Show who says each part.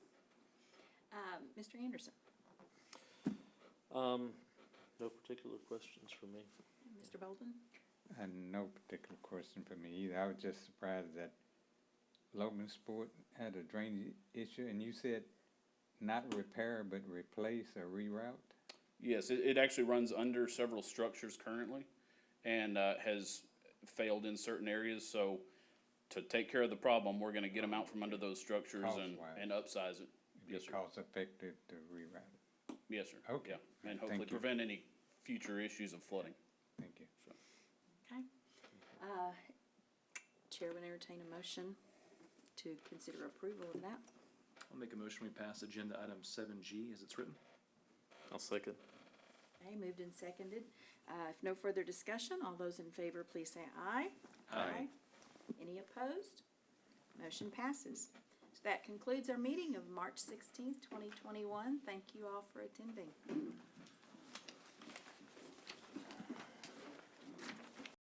Speaker 1: Mr. Anderson,
Speaker 2: Um, no particular questions for me.
Speaker 1: Mr. Belden,
Speaker 3: And no particular question for me either. I was just surprised that Logansport had a drainage issue, and you said not repair, but replace or reroute?
Speaker 4: Yes, it, it actually runs under several structures currently and, uh, has failed in certain areas, so to take care of the problem, we're gonna get them out from under those structures and,
Speaker 3: Cost-wise.
Speaker 4: and upsize it. Yes,
Speaker 3: Be
Speaker 4: sir.
Speaker 3: cost effective to reroute.
Speaker 4: Yes, sir.
Speaker 3: Okay.
Speaker 4: Yeah, and
Speaker 3: Thank
Speaker 4: hopefully
Speaker 3: you.
Speaker 4: prevent any future issues of flooding.
Speaker 3: Thank you.
Speaker 1: okay? Uh, Chair would entertain a motion to consider approval of that.
Speaker 5: I'll make a motion, we pass agenda item seven G as it's written.
Speaker 2: I'll second.
Speaker 1: Okay, moved and seconded. Uh, If no further discussion, all those in favor, please say aye.
Speaker 5: Aye.
Speaker 1: Any opposed? Motion passes. So that concludes our meeting of March sixteenth, twenty twenty-one. Thank you all for attending.